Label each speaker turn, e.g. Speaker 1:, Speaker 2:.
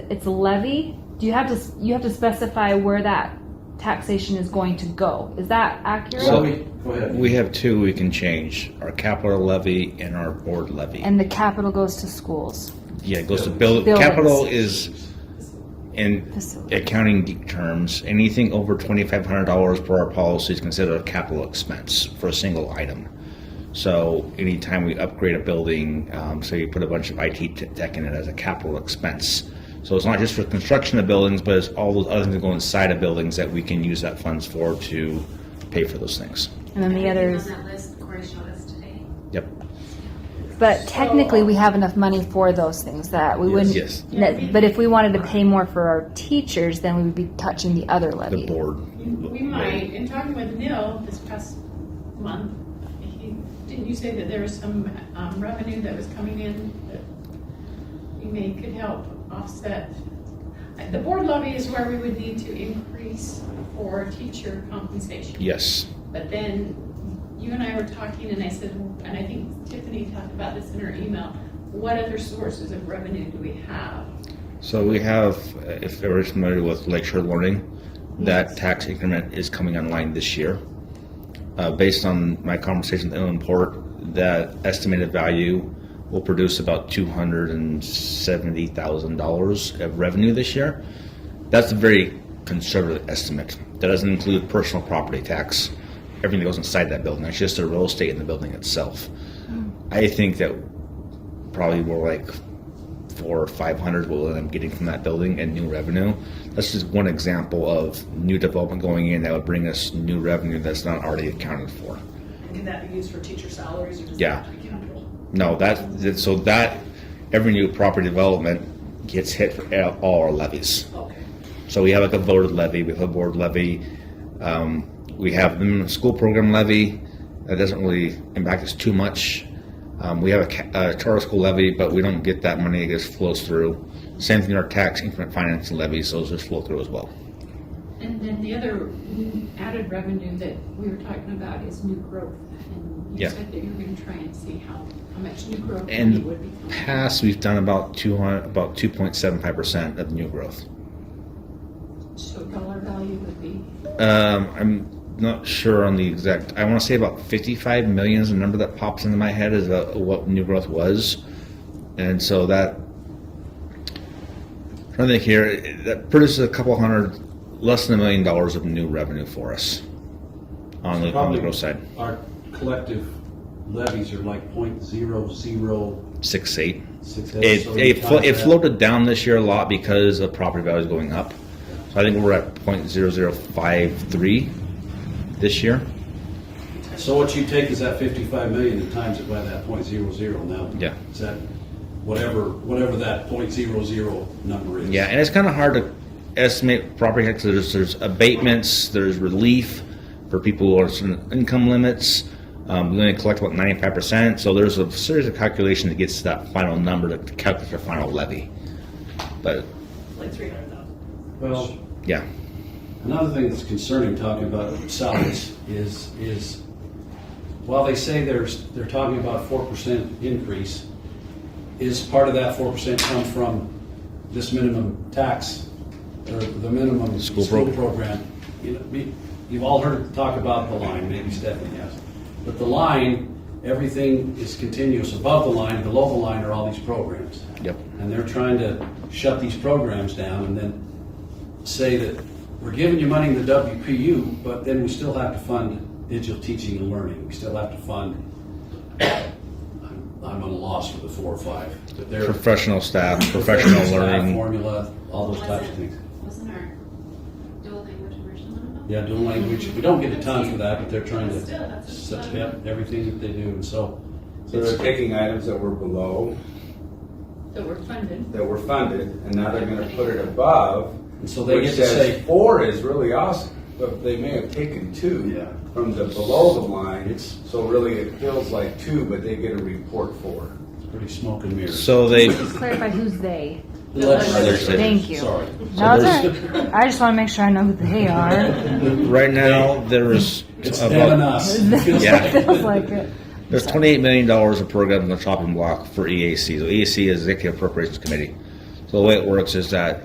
Speaker 1: it's levy, do you have to, s- you have to specify where that taxation is going to go? Is that accurate?
Speaker 2: So-
Speaker 3: we, go ahead.
Speaker 2: We have two we can change, our capital levy and our board levy.
Speaker 1: And the capital goes to schools.
Speaker 2: Yeah, it goes to build,
Speaker 1: Buildings.
Speaker 2: capital is, in
Speaker 1: Facility.
Speaker 2: accounting geek terms, anything over twenty-five hundred dollars per our policy is considered a capital expense for a single item. So anytime we upgrade a building, um, so you put a bunch of IT te- tech in it as a capital expense. So it's not just for construction of buildings, but it's all those other things that go inside of buildings that we can use that funds for to pay for those things.
Speaker 1: And then the others,
Speaker 4: Everything on that list, Corey showed us today.
Speaker 2: Yep.
Speaker 1: but technically, we have enough money for those things that we wouldn't.
Speaker 2: Yes.
Speaker 1: that- But if we wanted to pay more for our teachers, then we would be touching the other
Speaker 2: The
Speaker 1: levy.
Speaker 2: board.
Speaker 5: We might, in talking with Neil this past month, he, didn't you say that there was some um, revenue that was coming in that we may could help offset? Uh, The board levy is where we would need to increase for teacher compensation.
Speaker 2: Yes.
Speaker 5: But then you and I were talking and I said, and I think Tiffany talked about this in her email, what other sources of revenue do we have?
Speaker 2: So we have, uh, if everyone's familiar with lecture learning, that
Speaker 5: Yes.
Speaker 2: tax increment is coming online this year. Uh, based on my conversation with Inland Port, that estimated value will produce about two hundred and seventy thousand dollars of revenue this year. That's a very conservative estimate. That doesn't include personal property tax, everything that goes inside that building. That's just the real estate in the building itself. I think that probably more like four or five hundred what I'm getting from that building and new revenue. That's just one example of new development going in that would bring us new revenue that's not already accounted for.
Speaker 6: And can that be used for teacher salaries or does it
Speaker 2: Yeah.
Speaker 6: have to be capital?
Speaker 2: No, that that- so that every new property development gets hit for all- all our levies.
Speaker 6: Okay.
Speaker 2: So we have like a voted levy, we have a board levy, um, we have the minimum school program levy. That doesn't really impact us too much. Um, we have a, ca- a charter school levy, but we don't get that money. It just flows through. Same thing with our tax increment financing levies; those just flow through as well.
Speaker 5: And then the other added revenue that we were talking about is new growth. And
Speaker 2: Yeah.
Speaker 5: you said that you were gonna try and see how, how much new growth
Speaker 2: In
Speaker 5: money
Speaker 2: the
Speaker 5: would be. coming.
Speaker 2: past, we've done about two hundred, about two point seven five percent of new growth.
Speaker 5: So dollar value would be,
Speaker 2: Um, I'm not sure on the exact. I want to say about 55 million is the number that pops into my head is uh, what new growth was, and so that. Trying to think here, it- that produces a couple hundred, less than a million dollars of new revenue for us. On the on the
Speaker 3: Probably
Speaker 2: growth side,
Speaker 3: Our collective levies are like point zero zero
Speaker 2: six eight.
Speaker 3: six.
Speaker 2: It it, flo- it floated down this year a lot because of property values going up. So I think we're at 0.0053 this year.
Speaker 3: So what you take is that fifty-five million and times it by that point zero zero now.
Speaker 2: Yeah.
Speaker 3: Is that whatever, whatever that point zero zero number is?
Speaker 2: Yeah, and it's kind of hard to estimate property taxes. There's, there's abatements, there's relief for people who are certain income limits. Um, we only collect about ninety-five percent, so there's a series of calculation that gets to that final number to calculate your final levy. But
Speaker 6: Like three hundred thousand.
Speaker 3: Well,
Speaker 2: yeah,
Speaker 3: Another thing that's concerning talking about salaries is, is while they say there's, they're talking about four percent increase, is part of that four percent come from this minimum tax or the minimum
Speaker 2: School
Speaker 3: school
Speaker 2: program.
Speaker 3: program? You know, me- you've all heard talk about the line, maybe Stephanie has, but the line, everything is continuous above the line, below the line are all these programs.
Speaker 2: Yep.
Speaker 3: And they're trying to shut these programs down and then say that we're giving you money in the WPU, but then we still have to fund digital teaching and learning. We still have to fund, I'm, I'm at a loss for the four or five, but they're.
Speaker 2: professional staff, professional
Speaker 3: staff,
Speaker 2: learning.
Speaker 3: Formula, all those types of things.
Speaker 4: Wasn't our dual language immersion one of them?
Speaker 3: Yeah, dual language, we don't get a ton for that, but they're trying
Speaker 5: Still,
Speaker 3: to
Speaker 5: that's a ton.
Speaker 3: step everything that they do, and so.
Speaker 7: So they're taking items that were below,
Speaker 5: that we're funded.
Speaker 7: that were funded, and now they're gonna put it above.
Speaker 3: And so they
Speaker 7: which
Speaker 3: get to
Speaker 7: says
Speaker 3: say-
Speaker 7: Four is really awesome, but they may have taken two
Speaker 3: Yeah.
Speaker 7: from the below the line,
Speaker 3: It's-
Speaker 7: so really it feels like two, but they get a report four.
Speaker 3: It's pretty smoke and mirrors.
Speaker 2: So they,
Speaker 1: Just clarify who's they.
Speaker 3: The legislature.
Speaker 2: Legislature.
Speaker 1: Thank you.
Speaker 3: Sorry.
Speaker 1: No, it's all right. I just want to make sure I know who they are.
Speaker 2: right now, there's
Speaker 3: It's them and
Speaker 2: about,
Speaker 3: us. It feels
Speaker 2: Yeah.
Speaker 3: like-
Speaker 1: Feels like it.
Speaker 2: There's $28 million of E programs on the chopping block for EAC. So EAC is Executive Appropriations Committee. So the way it works is that